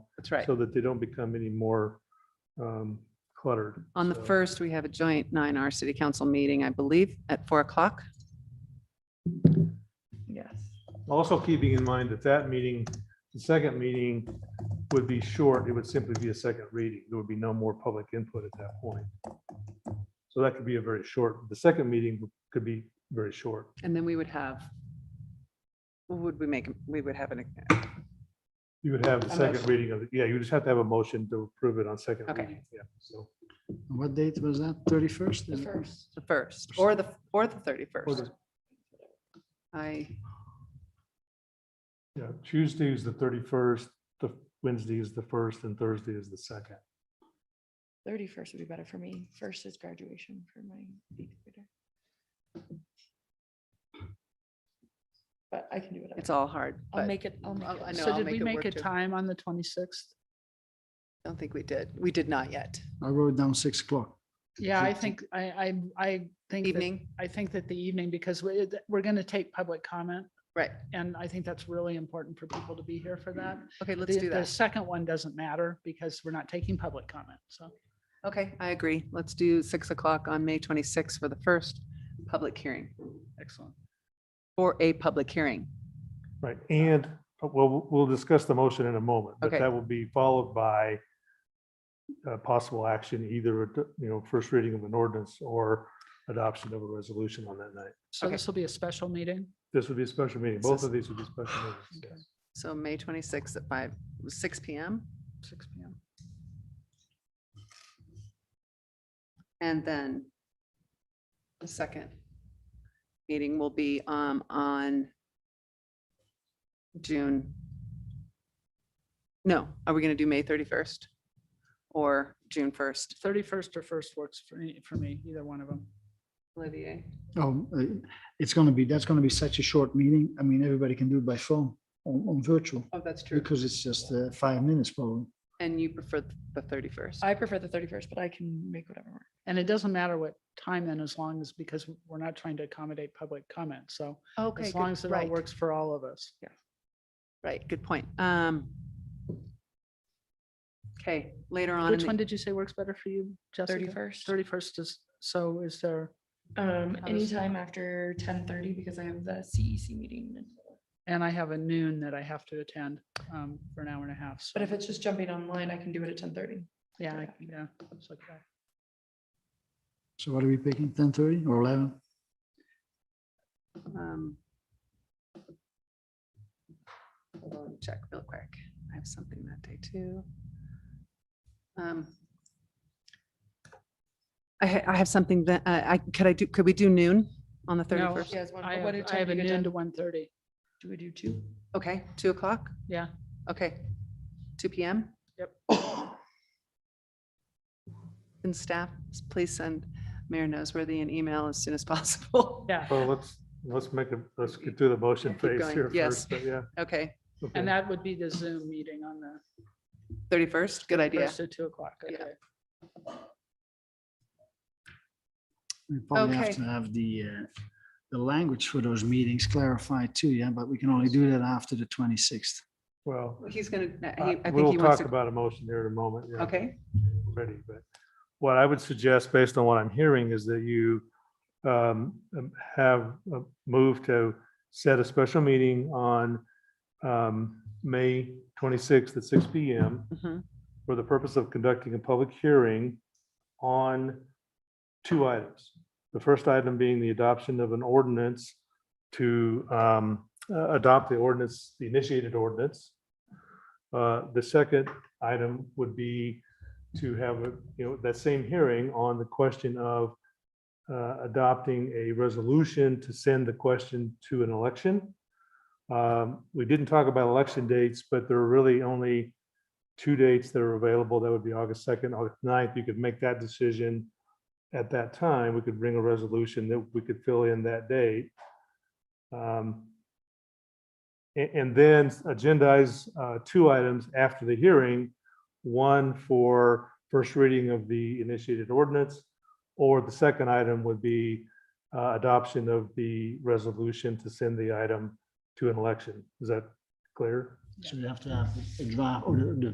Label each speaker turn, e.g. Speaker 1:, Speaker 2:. Speaker 1: That's right.
Speaker 2: so that they don't become any more um, cluttered.
Speaker 1: On the
Speaker 2: So-
Speaker 1: first, we have a joint 9R City Council meeting, I believe, at 4 o'clock.
Speaker 3: Yes.
Speaker 2: Also keeping in mind that that meeting, the second meeting would be short. It would simply be a second reading. There would be no more public input at that point. So that could be a very short, the second meeting could be very short.
Speaker 1: And then we would have, what would we make, we would have an,
Speaker 2: You would have the
Speaker 1: A
Speaker 2: second
Speaker 1: motion.
Speaker 2: reading of, it. yeah, you just have to have a motion to approve it on second
Speaker 1: Okay.
Speaker 2: reading. Yeah, so.
Speaker 4: What date was that? Thirty-first?
Speaker 3: The first.
Speaker 1: the first, or the, or the
Speaker 2: Or
Speaker 1: 31st.
Speaker 2: the-
Speaker 1: I,
Speaker 2: Yeah, Tuesday is the thirty-first, the Wednesday is the first, and Thursday is the second.
Speaker 3: Thirty-first would be better for me. First is graduation for my eighth grader. But I can do it.
Speaker 1: it's all hard, but
Speaker 3: I'll
Speaker 1: I
Speaker 3: make it. I'll make
Speaker 1: I'll-
Speaker 3: it
Speaker 1: I
Speaker 3: work.
Speaker 1: know,
Speaker 3: So
Speaker 1: I'll
Speaker 3: did
Speaker 1: make
Speaker 3: we
Speaker 1: it
Speaker 3: make
Speaker 1: work
Speaker 3: it
Speaker 1: too.
Speaker 3: time on the twenty-sixth?
Speaker 1: don't think we did. We did not yet.
Speaker 4: I wrote down six o'clock.
Speaker 5: Yeah, I
Speaker 4: Evening.
Speaker 5: think, I, I, I think, that-
Speaker 1: Evening,
Speaker 5: I think that the evening, because we, we're going to take public comment.
Speaker 1: right.
Speaker 5: And I think that's really important for people to be here for that.
Speaker 1: Okay, let's
Speaker 5: The-
Speaker 1: do
Speaker 5: The
Speaker 1: that.
Speaker 5: second one doesn't matter because we're not taking public comment. So
Speaker 1: Okay, I agree. Let's do 6 o'clock on May 26th for the first public hearing,
Speaker 5: excellent.
Speaker 1: for a public hearing.
Speaker 2: Right, and, uh, well, we'll discuss the motion in a moment, but
Speaker 1: Okay.
Speaker 2: that will be followed by uh, possible action, either, ad- you know, first reading of an ordinance or adoption of a resolution on that night.
Speaker 5: So
Speaker 1: Okay.
Speaker 5: this will be a special meeting.
Speaker 2: This would be a special meeting.
Speaker 1: So-
Speaker 2: Both of these would be special meetings. yes.
Speaker 1: So May 26th at 5, 6 PM.
Speaker 5: Six P M.
Speaker 1: And then the second meeting will be um, on June. No, are we going to do May 31st or June 1st?
Speaker 5: Thirty-first or first works for me, for me, either one of them.
Speaker 1: Olivier,
Speaker 4: Oh, uh, it's gonna be, that's gonna be such a short meeting. I mean, everybody can do it by phone on, on virtual
Speaker 1: oh, that's true.
Speaker 4: because it's just uh, five minutes probably.
Speaker 1: And you prefer the 31st?
Speaker 3: I prefer the thirty-first, but I can make whatever work.
Speaker 5: And it doesn't matter what time then, as long as, because we're not trying to accommodate public comment. So
Speaker 1: Okay.
Speaker 5: as
Speaker 1: good-
Speaker 5: long as it all
Speaker 1: right,
Speaker 5: works for all of us.
Speaker 1: Right, good point. Um. Okay, later on. in
Speaker 5: Which
Speaker 1: the-
Speaker 5: one did you say works better for you, Jessica?
Speaker 3: Thirty-first.
Speaker 5: Thirty-first is, so is there,
Speaker 3: Um,
Speaker 5: How does-
Speaker 3: anytime after ten thirty because I have the CEC meeting.
Speaker 5: and I have a noon that I have to attend um, for an hour and a half. so-
Speaker 3: But if it's just jumping online, I can do it at ten thirty.
Speaker 5: Yeah, I- yeah. it's like that.
Speaker 4: So what are we picking? Ten thirty or eleven?
Speaker 1: Um hold on, Check real quick. I have something that day too. Um I, ha- I have something that, uh, I, could I do, could we do noon on the
Speaker 5: No.
Speaker 1: 31st?
Speaker 3: Yes, one,
Speaker 5: I
Speaker 3: what
Speaker 5: have, I
Speaker 3: time
Speaker 5: have
Speaker 3: do
Speaker 5: a
Speaker 3: you get
Speaker 5: noon
Speaker 3: done?
Speaker 5: to one thirty.
Speaker 3: Do we do two?
Speaker 1: Okay, 2 o'clock?
Speaker 5: Yeah.
Speaker 1: Okay, 2 PM?
Speaker 5: Yep.
Speaker 1: And staff, please send Mayor Noseworthy an email as soon as possible.
Speaker 5: Yeah.
Speaker 2: Well, let's, let's make a, let's get through the motion
Speaker 1: Keep
Speaker 2: phase
Speaker 1: going,
Speaker 2: here
Speaker 1: yes.
Speaker 2: first, but yeah.
Speaker 1: Okay,
Speaker 2: okay.
Speaker 5: And that would be the Zoom meeting on the
Speaker 1: 31st, good idea.
Speaker 5: first at two o'clock.
Speaker 1: Yeah.
Speaker 5: okay.
Speaker 4: We probably have
Speaker 1: Okay.
Speaker 4: to have the, uh, the language for those meetings clarified too, yeah, but we can only do that after the twenty-sixth.
Speaker 2: Well,
Speaker 1: He's gonna, he-
Speaker 2: Uh,
Speaker 1: I think
Speaker 2: We'll
Speaker 1: he wants
Speaker 2: talk
Speaker 1: to,
Speaker 2: about a motion here in a moment. yeah,
Speaker 1: okay?
Speaker 2: Ready, but what I would suggest, based on what I'm hearing, is that you um, um, have a move to set a special meeting on um, May 26th at 6 PM
Speaker 1: Mhm.
Speaker 2: for the purpose of conducting a public hearing on two items. The first item being the adoption of an ordinance to um, uh, adopt the ordinance, the initiated ordinance. Uh, The second item would be to have, a you know, that same hearing on the question of uh, adopting a resolution to send the question to an election. Um, We didn't talk about election dates, but there are really only two dates that are available. That would be August 2nd, August 9th. You could make that decision at that time. We could bring a resolution that we could fill in that date. Um, a- And then agendize uh, two items after the hearing, one for first reading of the initiated ordinance, or the second item would be uh, adoption of the resolution to send the item to an election. Is that clear?
Speaker 4: So we have to have a draft or the, the